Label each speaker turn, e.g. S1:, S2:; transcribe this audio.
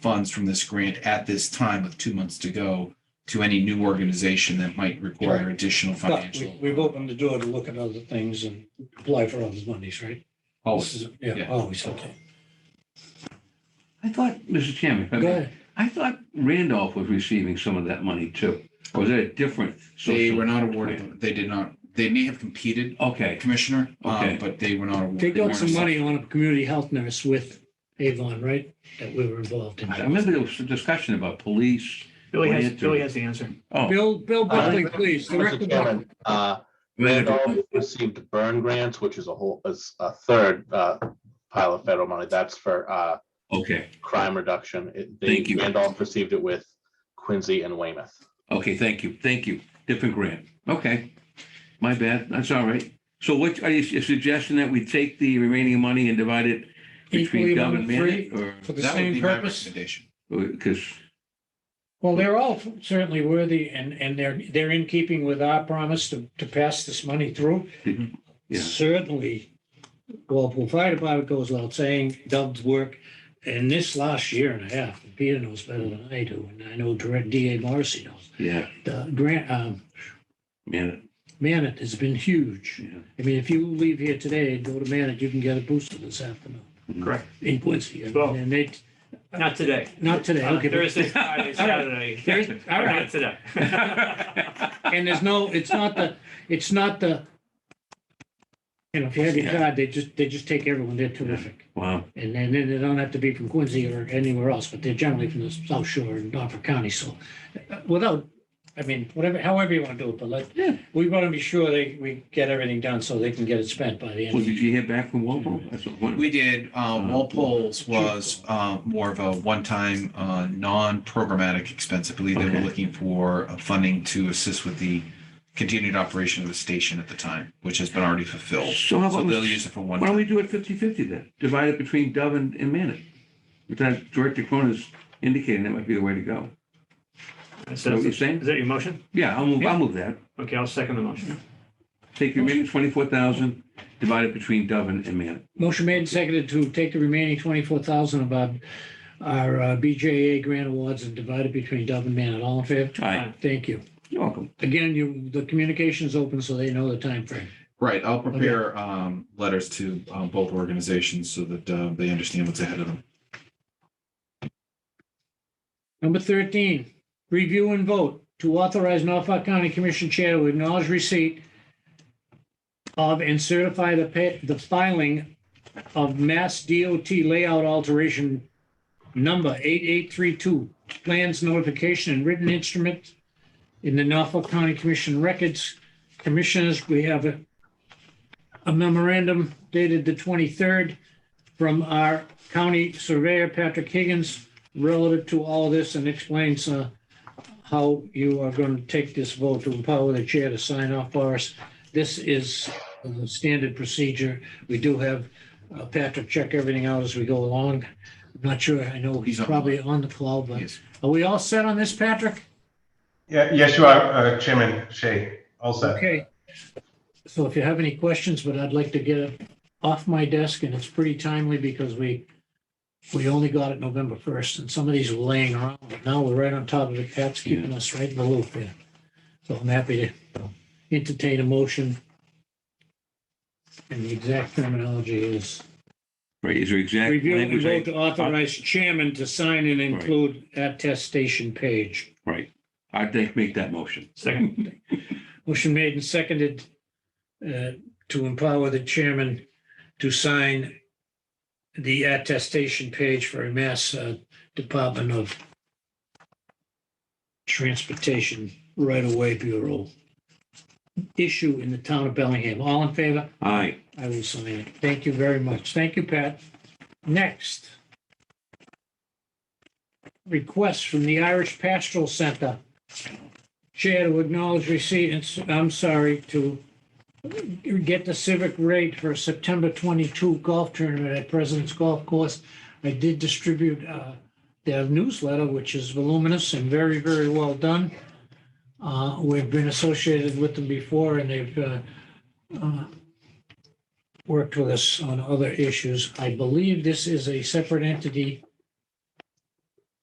S1: funds from this grant at this time with two months to go to any new organization that might require additional
S2: But we-
S1: financial.
S2: we've opened the door to look at other things and apply for other monies, right? This
S1: Always.
S2: is- Yeah,
S1: yeah.
S2: always, okay.
S3: I thought, Mr. Chairman, if I
S2: Go
S3: may,
S2: ahead.
S3: I thought Randolph was receiving some of that money too. Or Was it a different?
S1: They
S3: social-
S1: were not awarded, they did not, they may have competed,
S3: Okay,
S1: Commissioner, um,
S3: Okay.
S1: but they were not awarded.
S2: They got some
S1: weren't-
S2: money on a community health nurse with Avon, right? That we were involved in.
S3: I remember there was a discussion about police.
S4: Billy has,
S3: Oriented.
S4: Billy has the answer.
S3: Oh.
S2: Bill, Bill Buckley, please. the
S5: Mr.
S2: record-
S5: Uh, Chairman, uh, Randolph received the burn grants, which is a whole, is a third uh, pile of federal money. That's for uh,
S3: Okay,
S5: crime reduction. It- they-
S3: Thank you.
S5: Randolph received it with Quincy and Weymouth.
S3: okay, thank you, thank you. Different grant. Okay. My bad, that's all right. So what, are you suggesting that we take the remaining money and divide it
S2: Equally
S3: between Gov and
S2: among three
S3: Manette or?
S2: For the
S1: That would be
S2: same
S1: my
S2: purpose.
S1: recommendation.
S3: Because,
S2: Well, they're all certainly worthy and, and they're, they're in keeping with our promise to, to pass this money through.
S3: Mhm. Yeah.
S2: Certainly, Walpole Fire Department goes without saying, Doug's work in this last year and a half, Peter knows better than I do, and I know Direct DA Morrissey knows.
S3: yeah,
S2: The grant, um,
S3: Manette,
S2: Manet has been huge.
S3: yeah.
S2: I mean, if you leave here today and go to Manet, you can get a booster this afternoon
S4: Correct.
S2: in Quincy.
S4: Well-
S2: And they,
S4: Not today.
S2: not today,
S4: On
S2: okay. but-
S4: Thursday, Friday, Saturday.
S2: Thursday, all right.
S4: Not Today.
S2: And there's no, it's not the, it's not the, you know, if you have your
S3: Yeah.
S2: card, they just, they just take everyone. They're terrific.
S3: Wow,
S2: And then, then they don't have to be from Quincy or anywhere else, but they're generally from the South Shore and Norfolk County. So uh, without, I mean, whatever, however you want to do it, but
S3: Yeah.
S2: let, we want to be sure they, we get everything done so they can get it spent by the
S3: well,
S2: end.
S3: did you hear back from Walpole? That's what I wondered.
S1: We did, uh, Walpole's was, uh, more of a one-time, uh, non-programmatic expense. I believe they were
S3: Okay.
S1: looking for uh, funding to assist with the continued operation of the station at the time, which has been already fulfilled.
S3: So how
S1: So
S3: about,
S1: they'll
S3: Mr.
S1: use it for one
S3: Why
S1: time.
S3: don't we do it 50/50 then? Divide it between Dove and, and Manette. But that Director Cronin's indicating that might be the way to go. Is that
S4: So
S3: what you're
S4: Is
S3: saying?
S4: that your motion?
S3: Yeah, I'll move, I'll move that.
S4: Okay, I'll second the motion.
S3: Take the remaining twenty-four thousand, divide it between Dove and and Manette.
S2: Motion made and seconded to take the remaining twenty-four thousand of our, our uh, BJA grant awards and divide it between Dove and Manet. All in favor?
S3: All right,
S2: Thank you.
S3: you're welcome.
S2: Again, you, the communication's open, so they know the time frame.
S1: Right, I'll prepare, um, letters to, um, both organizations so that, uh, they understand what's ahead of them.
S2: Number thirteen, review and vote to authorize Norfolk County Commission Chair to acknowledge receipt of and certify the pay, the filing of Mass DOT layout alteration number eight eight three two, plans notification and written instrument in the Norfolk County Commission records. Commissioners, we have a a memorandum dated the twenty-third from our county surveyor, Patrick Higgins, relative to all this and explains uh, how you are going to take this vote to empower the chair to sign off for us. This is uh, standard procedure. We do have uh, Patrick check everything out as we go along. I'm Not sure, I know he's
S1: He's on.
S2: probably on the call, but
S1: Yes.
S2: are we all set on this, Patrick?
S6: Yeah, yes, you are, uh, Chairman Shea. All set.
S2: Okay. So if you have any questions, but I'd like to get it off my desk and it's pretty timely because we, we only got it November first and some of these were laying around. but Now we're right on top of it. Pat's keeping us right in the loop here. So I'm happy to entertain a motion. And the exact terminology is
S3: Right, is there exact
S2: review and
S3: language?
S2: vote to
S3: I-
S2: authorize chairman to sign and include attestation page.
S3: Right, I'd like to make that motion.
S4: Second.
S2: Motion made and seconded uh, to empower the chairman to sign the attestation page for a Mass uh, Department of Transportation Right-of-Way Bureau issue in the town of Bellingham. All in favor?
S3: Aye,
S2: I will sign it. Thank you very much. Thank you, Pat. Next. Request from the Irish Pastoral Center. Chair to acknowledge receipt, and s- I'm sorry, to get the civic rate for September 22 golf tournament at President's Golf Course. I did distribute uh, their newsletter, which is voluminous and very, very well done. Uh, We've been associated with them before, and they've uh, uh, worked with us on other issues. I believe this is a separate entity